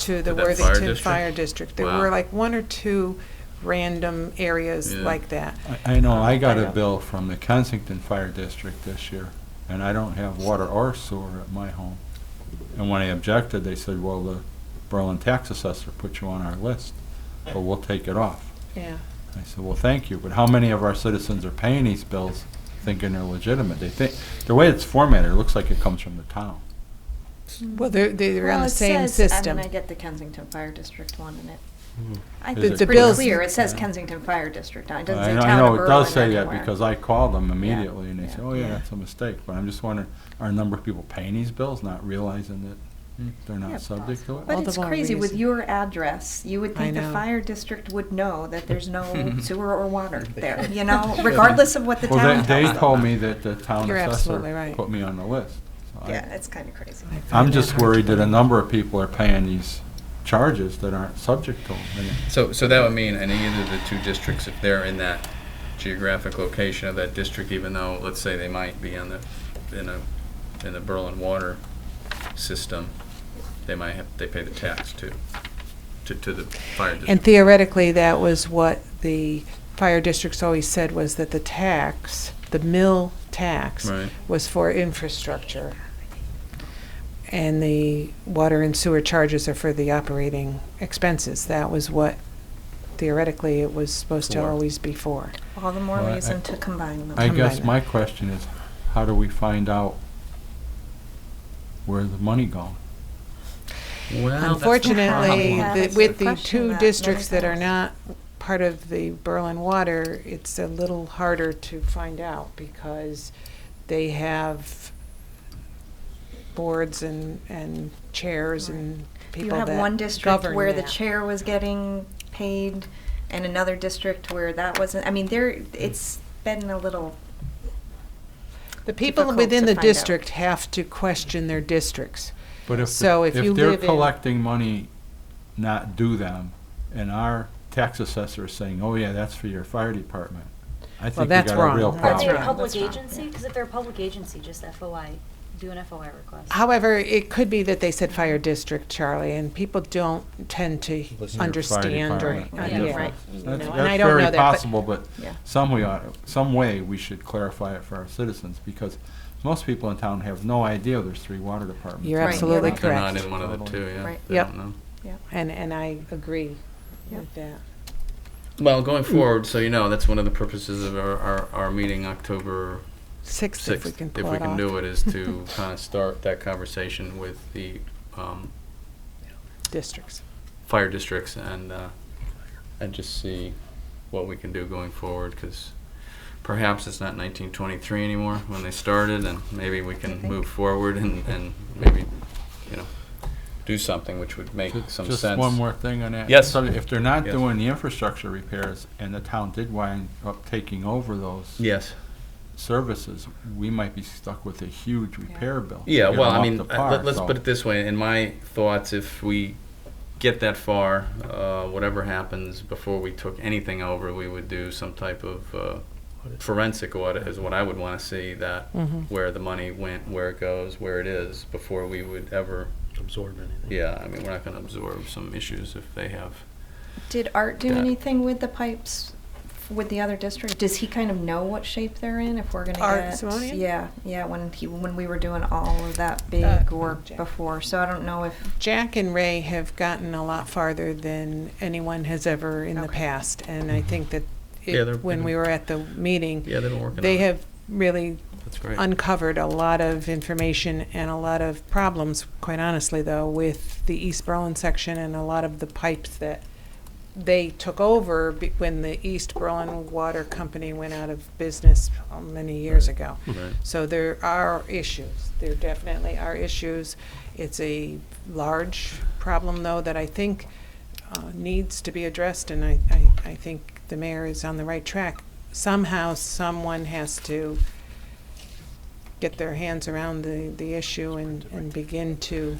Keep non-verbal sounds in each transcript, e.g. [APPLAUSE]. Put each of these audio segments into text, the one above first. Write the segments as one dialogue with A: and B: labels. A: to the
B: To that fire
A: Worthington
B: district?
A: Fire District. There
B: Wow.
A: were like one or two random areas
B: Yeah.
A: like that.
C: I, I know, I got
A: I know.
C: a bill from the Kensington Fire District this year, and I don't have water or sewer at my home. And when I objected, they said, well, the Berlin tax assessor put you on our list, but we'll take it off.
A: Yeah.
C: I said, well, thank you, but how many of our citizens are paying these bills thinking they're legitimate? They think, the way it's formatted, it looks like it comes from the town.
A: Well, they're, they're on
D: Well,
A: the
D: it
A: same
D: says-
A: system.
D: I mean, I get the Kensington Fire District one, and it, I
C: Hmm. Is it
D: think it's pretty
C: correct?
D: clear, it says
C: Yeah.
D: Kensington Fire District, now it doesn't
C: I
D: say
C: know-
D: Town of
C: I know, it does say
D: Berlin
C: that,
D: anywhere.
C: because I called them immediately, and they
D: yeah.
C: said, oh, yeah,
A: Yeah.
C: that's a mistake, but I'm just wondering, are a number of people paying these bills, not realizing that hmm, they're
D: Yeah,
C: not subject to it?
A: All
D: But
A: the
D: it's
A: wrong
D: crazy, with
A: reason.
D: your address, you would
A: I
D: think the
A: know.
D: fire district would know that
C: [LAUGHS]
D: there's no [LAUGHS] sewer
A: [LAUGHS]
D: or water there, you know, regardless of what the
C: Well,
D: town
C: they,
D: tells
C: they
D: them.
C: told me that the town
A: You're absolutely
C: assessor
A: right.
C: put me on the list. so I-
D: Yeah, it's kind of crazy.
A: I find
C: I'm just
A: hard to
C: worried that a
A: believe.
C: number of people are paying these charges that aren't subject to them. And
B: So, so that would mean in either of the two districts, if they're in that geographic location of that district, even though, let's say they might be on the, in a, in the Berlin water system, they might have, they pay the tax to, to, to the fire
A: And
B: district.
A: theoretically, that was what the fire districts always said was that the tax, the mill tax,
B: Right.
A: was for infrastructure. And the water and sewer charges are for the operating expenses. That was what theoretically it was supposed to
B: For.
A: always be for.
D: All the more
C: Well, I-
D: reason to combine them.
C: I
A: Combine
C: guess
A: it.
C: my question is, how do we find out where's the money going?
B: Well,
A: Unfortunately,
D: problem.
A: the-
D: That's
A: with
D: the
A: the
D: question that
A: two
D: many
A: districts that are
D: times.
A: not part of the Berlin Water, it's a little harder to find out because they have boards and, and chairs and
D: You
A: people that
D: have
A: govern
D: one district where the
A: that.
D: chair was getting paid, and another district where that wasn't, I mean, there, it's been a little,
A: The people
D: difficult
A: within
D: to
A: the
D: find out.
A: district have to question their districts.
C: But if,
A: So
C: the-
A: if you
C: if they're
A: live in-
C: collecting money not due them, and our tax assessor is saying, oh, yeah, that's for your fire department, I think we
A: that's
C: got a
A: wrong.
C: real
A: That's
C: problem.
E: Are they a
A: wrong.
E: public
D: That's wrong,
E: agency?
D: yeah.
E: Because if they're a public agency, just FOI, do an FOI request.
A: However, it could be that they said fire district, Charlie, and people don't tend to
C: Listen to your fire
A: understand or,
C: department.
A: uh,
E: Yeah,
A: yeah.
E: right.
A: you
C: That's,
A: know,
C: that's
A: and I don't
C: very
A: know that, but-
C: possible, but
D: Yeah.
C: some we ought, some way we should clarify it for our citizens because most people in town have no idea there's three water departments.
A: You're
C: in town.
A: absolutely
B: They're not
A: correct.
B: in one of the two, yeah.
D: Right.
B: They
A: Yep.
B: don't know.
D: yeah.
A: And, and I agree
D: Yep.
A: with that.
B: Well, going
A: Mm.
B: forward, so you know, that's one of the purposes of our, our, our meeting October
A: Sixth, if we
B: sixth,
A: can
B: if
A: pull
B: we
A: it
B: can
A: off.
B: do it, is
A: [LAUGHS]
B: to kind of start that conversation with the, um,
A: Districts.
B: fire districts and uh, and just see what we can do going forward because perhaps it's not 1923 anymore when they started and maybe we
D: I
B: can
D: think.
B: move forward and, and maybe you know do something which would make
C: Ju-
B: some
C: Just
B: sense
C: one more thing on that.
B: Yes.
C: So If they're not
B: Yes.
C: doing the infrastructure repairs and the town did wind up taking over those
B: yes
C: services, we might be stuck with a huge repair bill. to
B: Yeah,
C: get
B: well,
C: them
B: I
C: up
B: mean,
C: to
B: uh,
C: par,
B: let, us
C: so-
B: put it this way. [LAUGHS] In my thoughts, if we get that far, uh, whatever happens before we took anything over, we would do some type of uh, forensic audit. Is what I would want to see that
A: Mhm.
B: where the money went, where it goes, where it is, before we would ever.
F: absorb anything.
B: Yeah, I mean, we're not going to absorb some issues if they have.
D: Did Art do
B: Yeah.
D: anything with the pipes f- with the other district? Does he kind of know what shape they're in if we're gonna
A: Art
D: get?
A: Simonian?
D: Yeah, yeah, when he, when we were doing all of that
A: Uh,
D: big work
A: Jack.
D: before, so I don't know if,
A: Jack and Ray have gotten a lot farther than anyone has ever in the
D: Okay.
A: past, and I think that
B: Yeah, they're-
A: it, when we were at the meeting,
B: Yeah, they've been working.
A: they
B: on
A: have really
B: It. That's great.
A: uncovered a lot of information and a lot of problems, quite honestly, though, with the East Berlin section and a lot of the pipes that they took over be- when the East Berlin Water Company went out of business uh, many years
B: Right.
A: ago.
B: right.
A: So there are issues. There definitely are issues. It's a large problem, though, that I think uh, needs to be addressed, and I, I, I think the mayor is on the right track. Somehow, someone has to get their hands around the, the issue and, and begin to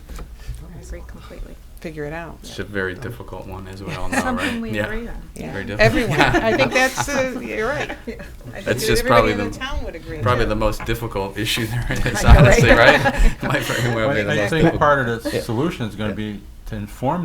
D: I agree completely.
A: figure it out.
B: It's a very difficult one, as we
D: [LAUGHS]
B: all know, right?
D: Something we
B: yeah.
D: agree on.
A: Yeah.
B: Very difficult.
A: Everyone, I think that's, uh, you're right.
D: [LAUGHS]
A: I think
B: That's
A: that
B: just
A: everybody
B: probably the-
A: in town would agree.
B: Probably the most difficult issue there
D: [LAUGHS] I
B: is,
D: know, right?
B: honestly, right? [LAUGHS] Might very well be
C: I
B: the
C: I
B: most
C: think
B: difficult.
C: part of the solution is gonna be to inform